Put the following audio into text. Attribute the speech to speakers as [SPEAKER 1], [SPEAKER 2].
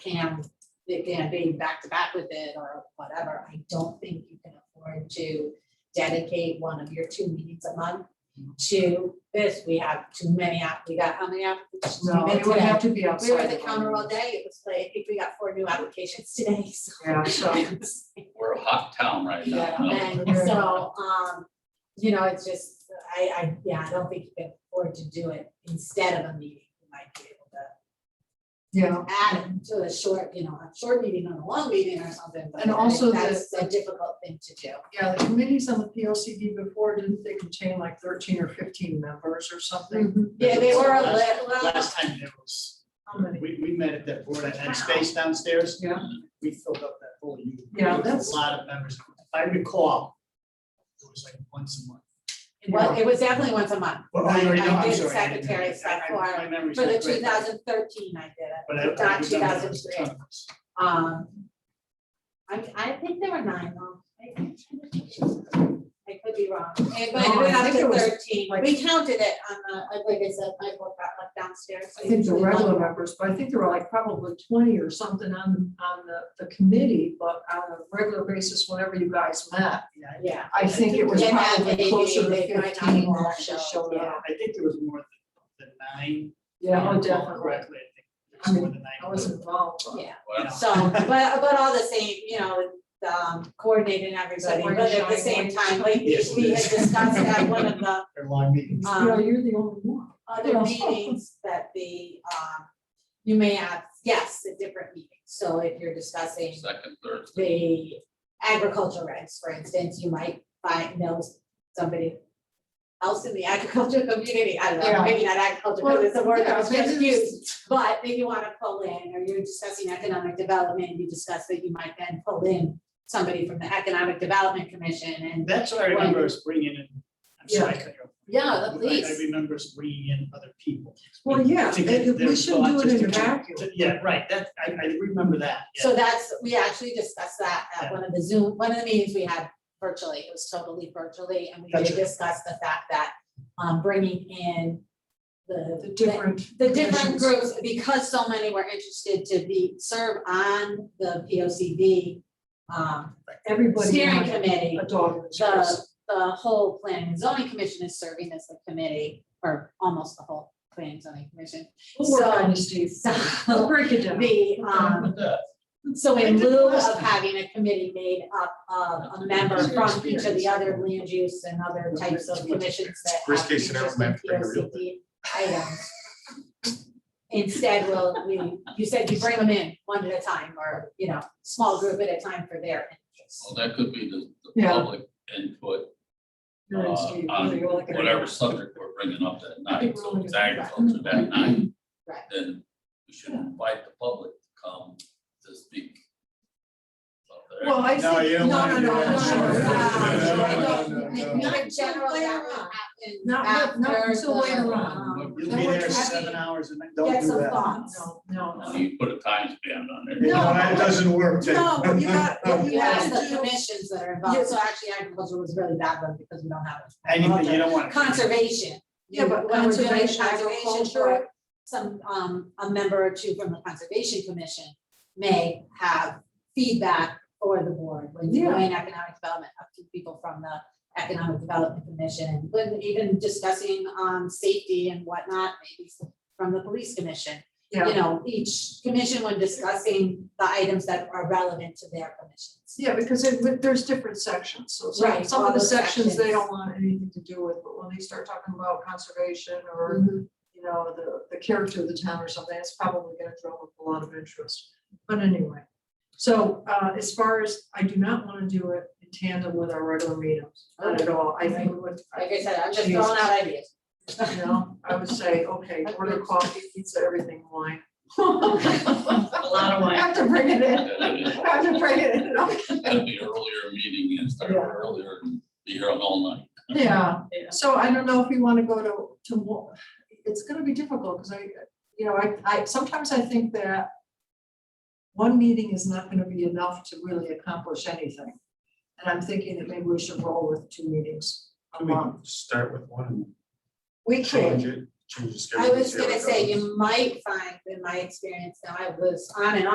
[SPEAKER 1] can, it can be back to back with it or whatever, I don't think you can afford to dedicate one of your two meetings a month to this, we have too many app, we got how many applicants? did we
[SPEAKER 2] No,
[SPEAKER 1] get
[SPEAKER 2] it would
[SPEAKER 1] today?
[SPEAKER 2] have to be outside.
[SPEAKER 1] We were at the
[SPEAKER 2] of
[SPEAKER 1] counter all
[SPEAKER 2] London.
[SPEAKER 1] day, it was like, I think we got four new applications today, so.
[SPEAKER 2] Yeah, so,
[SPEAKER 3] We're a hot town right now.
[SPEAKER 2] Yeah.
[SPEAKER 3] no?
[SPEAKER 1] And so, um, you know, it's just, I, I, yeah, I don't think you can afford to do it instead of a meeting, you might be able to
[SPEAKER 2] yeah,
[SPEAKER 1] add it to a short, you know, a short meeting and a long meeting or something, but
[SPEAKER 2] And also the-
[SPEAKER 1] that's a difficult thing to do.
[SPEAKER 2] yeah, the committees on the P O C D before, didn't they contain like thirteen or fifteen members or something?
[SPEAKER 1] Yeah, they were a
[SPEAKER 4] Last-
[SPEAKER 1] little, well,
[SPEAKER 4] Last time there was,
[SPEAKER 2] How many?
[SPEAKER 4] we, we met at that board and had space downstairs,
[SPEAKER 2] Yeah,
[SPEAKER 4] we filled up that whole unit.
[SPEAKER 2] Yeah, that's-
[SPEAKER 4] A lot of members, if I recall, it was like once a month.
[SPEAKER 1] it was, it was definitely once a month.
[SPEAKER 4] Well, I already know,
[SPEAKER 1] I
[SPEAKER 4] I'm
[SPEAKER 1] did
[SPEAKER 4] sorry, I didn't-
[SPEAKER 1] secretary stuff
[SPEAKER 4] I- I-
[SPEAKER 1] for,
[SPEAKER 4] My memory's
[SPEAKER 1] for the
[SPEAKER 4] not great,
[SPEAKER 1] two thousand thirteen I did
[SPEAKER 4] But
[SPEAKER 1] it,
[SPEAKER 4] I.
[SPEAKER 1] not
[SPEAKER 4] we've
[SPEAKER 1] two
[SPEAKER 4] done that
[SPEAKER 1] thousand
[SPEAKER 4] a
[SPEAKER 1] three.
[SPEAKER 4] ton of times.
[SPEAKER 1] Um. I, I think there were nine though. I think- I could be wrong, Eh, but it
[SPEAKER 2] No, I
[SPEAKER 1] went up
[SPEAKER 2] think it
[SPEAKER 1] to
[SPEAKER 2] was
[SPEAKER 1] thirteen,
[SPEAKER 2] like-
[SPEAKER 1] we counted it on the, like I said, my book got left downstairs. so
[SPEAKER 2] I think the
[SPEAKER 1] usually one-
[SPEAKER 2] regular members, but I think there were like probably twenty or something on, on the, the committee, but on a regular basis, whenever you guys met.
[SPEAKER 4] Yeah,
[SPEAKER 1] Yeah,
[SPEAKER 2] I think it was
[SPEAKER 1] And that
[SPEAKER 2] probably
[SPEAKER 1] maybe
[SPEAKER 2] closer to
[SPEAKER 1] they might not
[SPEAKER 2] fifteen
[SPEAKER 1] even
[SPEAKER 2] who
[SPEAKER 1] have
[SPEAKER 2] actually
[SPEAKER 1] showed,
[SPEAKER 2] showed
[SPEAKER 1] yeah.
[SPEAKER 2] up.
[SPEAKER 4] uh, I think there was more than, than nine.
[SPEAKER 2] Yeah,
[SPEAKER 4] if I
[SPEAKER 2] oh,
[SPEAKER 4] recall
[SPEAKER 2] definitely.
[SPEAKER 4] Correctly, I think
[SPEAKER 2] I
[SPEAKER 4] there was
[SPEAKER 2] mean,
[SPEAKER 4] more than nine.
[SPEAKER 2] I was involved. but-
[SPEAKER 1] yeah,
[SPEAKER 3] Well,
[SPEAKER 1] so, but, but all the same, you know, um, coordinating everybody,
[SPEAKER 2] we're
[SPEAKER 1] but at the
[SPEAKER 2] showing
[SPEAKER 1] same
[SPEAKER 2] one-
[SPEAKER 1] time, like, we
[SPEAKER 4] Yes, it
[SPEAKER 1] we had
[SPEAKER 4] is.
[SPEAKER 1] discussed at one of the
[SPEAKER 4] Or long meetings.
[SPEAKER 1] Um,
[SPEAKER 2] You know, you're the only one.
[SPEAKER 1] other
[SPEAKER 2] Yeah.
[SPEAKER 1] meetings that the, um, you may have, yes, a different meeting, so if you're discussing
[SPEAKER 3] Second, third,
[SPEAKER 1] the agriculture regs, for instance, you might find, know somebody else in the agriculture community, I don't know,
[SPEAKER 2] Yeah.
[SPEAKER 1] maybe not agriculture, because it's a word that was
[SPEAKER 2] Yeah,
[SPEAKER 1] just used. But maybe you wanna pull in, or you're discussing economic development, you discuss that you might then pull in somebody from the Economic Development Commission and,
[SPEAKER 4] That's what I remember us bringing in, I'm sorry, I cut you off.
[SPEAKER 1] yeah, the
[SPEAKER 4] I- I
[SPEAKER 1] police.
[SPEAKER 4] remember us bringing in other people.
[SPEAKER 2] Well, yeah,
[SPEAKER 4] To
[SPEAKER 2] they-
[SPEAKER 4] get their
[SPEAKER 2] we shouldn't do
[SPEAKER 4] thoughts,
[SPEAKER 2] it in a
[SPEAKER 4] just to-
[SPEAKER 2] vacuum.
[SPEAKER 4] to- Yeah, right, that, I, I remember that, yeah.
[SPEAKER 1] So that's, we actually discussed that at one of the Zoom, one of the meetings we had virtually, it was totally virtually, and we did
[SPEAKER 4] Gotcha.
[SPEAKER 1] discuss the fact that, um, bringing in
[SPEAKER 2] The
[SPEAKER 1] the, the
[SPEAKER 2] different.
[SPEAKER 1] the different
[SPEAKER 2] commissions.
[SPEAKER 1] groups, because so many were interested to be, serve on the P O C D. Um,
[SPEAKER 2] Everybody.
[SPEAKER 1] steering
[SPEAKER 2] had
[SPEAKER 1] committee,
[SPEAKER 2] A dog. in this
[SPEAKER 1] the,
[SPEAKER 2] race.
[SPEAKER 1] the whole planning and zoning commission is serving as the committee, or almost the whole planning and zoning commission.
[SPEAKER 2] We'll work on
[SPEAKER 1] so-
[SPEAKER 2] it, Steve. We'll
[SPEAKER 1] So,
[SPEAKER 2] break it down.
[SPEAKER 1] the, um, so in lieu of having a committee made up of a member from each of the other land use and other types of commissions that have.
[SPEAKER 5] Worst case scenario,
[SPEAKER 1] interest
[SPEAKER 5] we
[SPEAKER 1] in
[SPEAKER 5] have to bring a real
[SPEAKER 1] POCD Items. Instead, well, we, you said you bring them in one at a time, or, you know, small group at a time for their interests.
[SPEAKER 3] well, that could be the, the
[SPEAKER 2] Yeah.
[SPEAKER 3] public input, uh,
[SPEAKER 2] You're right, Steve. You're the only
[SPEAKER 3] on
[SPEAKER 2] guy.
[SPEAKER 3] whatever subject we're bringing up that night, so if it's
[SPEAKER 2] Right.
[SPEAKER 3] agriculture that
[SPEAKER 2] Mm-hmm.
[SPEAKER 3] night.
[SPEAKER 1] Right.
[SPEAKER 3] Then we should invite the public to come to speak. about the
[SPEAKER 2] Well, I
[SPEAKER 4] No, you
[SPEAKER 2] think, no,
[SPEAKER 4] don't
[SPEAKER 2] no, no,
[SPEAKER 4] wanna do
[SPEAKER 2] no,
[SPEAKER 4] that.
[SPEAKER 2] no, no,
[SPEAKER 1] No,
[SPEAKER 2] no.
[SPEAKER 1] And Not generally, that would happen
[SPEAKER 2] Not- not- not
[SPEAKER 1] after
[SPEAKER 2] until
[SPEAKER 1] the,
[SPEAKER 2] later on.
[SPEAKER 1] um,
[SPEAKER 4] You'll
[SPEAKER 2] That
[SPEAKER 4] be
[SPEAKER 2] would
[SPEAKER 4] there
[SPEAKER 2] have
[SPEAKER 4] seven
[SPEAKER 1] been-
[SPEAKER 4] hours and I-
[SPEAKER 1] Get
[SPEAKER 4] don't do
[SPEAKER 1] some
[SPEAKER 4] that.
[SPEAKER 1] thoughts.
[SPEAKER 2] No,
[SPEAKER 3] agriculture.
[SPEAKER 2] no,
[SPEAKER 3] And You put a time span on there.
[SPEAKER 2] No.
[SPEAKER 5] It doesn't work. Ted.
[SPEAKER 2] No, but you got- but you
[SPEAKER 1] Yeah, it's
[SPEAKER 2] have
[SPEAKER 1] the
[SPEAKER 2] to-
[SPEAKER 1] commissions that are involved,
[SPEAKER 2] Yeah.
[SPEAKER 1] so actually agriculture was really bad one because we don't have. a-
[SPEAKER 4] Anything, you don't want.
[SPEAKER 1] Conservation.
[SPEAKER 2] Yeah, but
[SPEAKER 1] When we're doing
[SPEAKER 2] conservation,
[SPEAKER 1] conservation
[SPEAKER 2] agriculture.
[SPEAKER 1] work, Some, um, a member or two from the conservation commission may have feedback for the board. When you're
[SPEAKER 2] Yeah.
[SPEAKER 1] doing economic development, up to people from the economic development commission, when even discussing, um, safety and whatnot, maybe from the police commission you
[SPEAKER 2] yeah,
[SPEAKER 1] know, each commission when discussing the items that are relevant to their commissions.
[SPEAKER 2] yeah, because it, but there's different sections, so some,
[SPEAKER 1] Right,
[SPEAKER 2] some
[SPEAKER 1] all
[SPEAKER 2] of the
[SPEAKER 1] those
[SPEAKER 2] sections they
[SPEAKER 1] sections.
[SPEAKER 2] don't want anything to do with, but when they start talking about conservation or you know, the, the character of the town or something, it's probably gonna draw up a lot of interest. But anyway, so, uh, as far as, I do not wanna do it in tandem with our regular meetings, not at all, I think we would.
[SPEAKER 1] Like I said, I'm just throwing out ideas.
[SPEAKER 2] You know, I would say, okay, order coffee, pizza, everything, wine. A
[SPEAKER 4] lot of wine.
[SPEAKER 2] Have to bring it in,
[SPEAKER 3] That'd
[SPEAKER 2] have to bring it in,
[SPEAKER 3] be an earlier meeting and start
[SPEAKER 2] Yeah.
[SPEAKER 3] earlier and be here all night.
[SPEAKER 2] Yeah, so I don't know if we wanna go to, to more, it's gonna be difficult, cause I, you know, I, I, sometimes I think that. One meeting is not gonna be enough to really accomplish anything, and I'm thinking that maybe we should roll with two meetings a
[SPEAKER 5] We
[SPEAKER 2] month.
[SPEAKER 5] can start with one
[SPEAKER 2] We
[SPEAKER 5] and change
[SPEAKER 2] could,
[SPEAKER 5] it, change the schedule.
[SPEAKER 1] I was
[SPEAKER 5] see how it
[SPEAKER 1] gonna say,
[SPEAKER 5] goes.
[SPEAKER 1] you might find, in my experience now, I was on and